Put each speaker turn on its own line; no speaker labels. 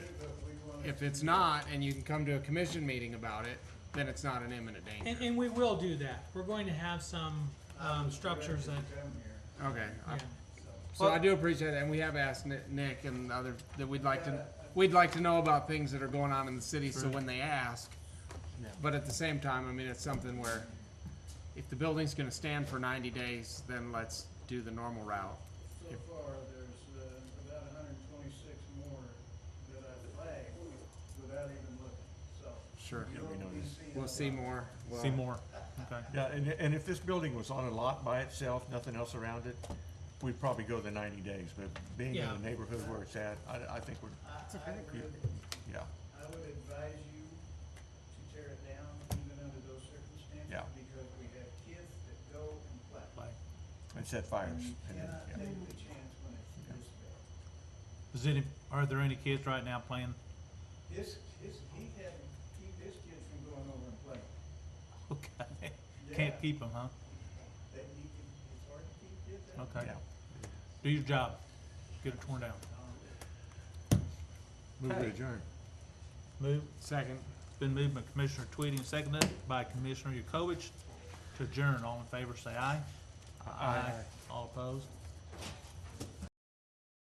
If it's not, and you can come to a commission meeting about it, then it's not an imminent danger.
And, and we will do that. We're going to have some, um, structures that,
Okay, I-
yeah.
so I do appreciate that, and we have asked Ni- Nick and the other, that we'd like to, we'd like to know about things that are going on in the city, so when they ask. But at the same time, I mean, it's something where, if the building's gonna stand for ninety days, then let's do the normal route.
So far, there's uh, about hundred and twenty-six more that I flagged without even looking, so.
Sure,
you don't really see
we'll
a
see
lot.
more. We'll-
Seymour, okay.
Yeah, and, and if this building was on a lot by itself, nothing else around it, we'd probably go the ninety days, but being in
Yeah.
the neighborhood where it's at, I, I think we're,
I, I would,
yeah,
I would advise you to tear it down even under those circumstances.
Yeah.
Because we have kids that go and play.
and set fires.
You
and then,
cannot take
yeah.
the chance when it's this bad.
Is any, are there any kids right now playing?
This, his, he had, keep his kids from going over and playing.
Okay,
Yeah,
can't keep them, huh?
That you can, it's hard to keep kids out.
Okay,
Yeah.
do your job, get it torn down.
Um,
Move
Okay.
to adjourn.
Move,
Second.
it's been moved by Commissioner Tweedy and seconded by Commissioner Yukovich to adjourn. All in favor, say aye. All opposed?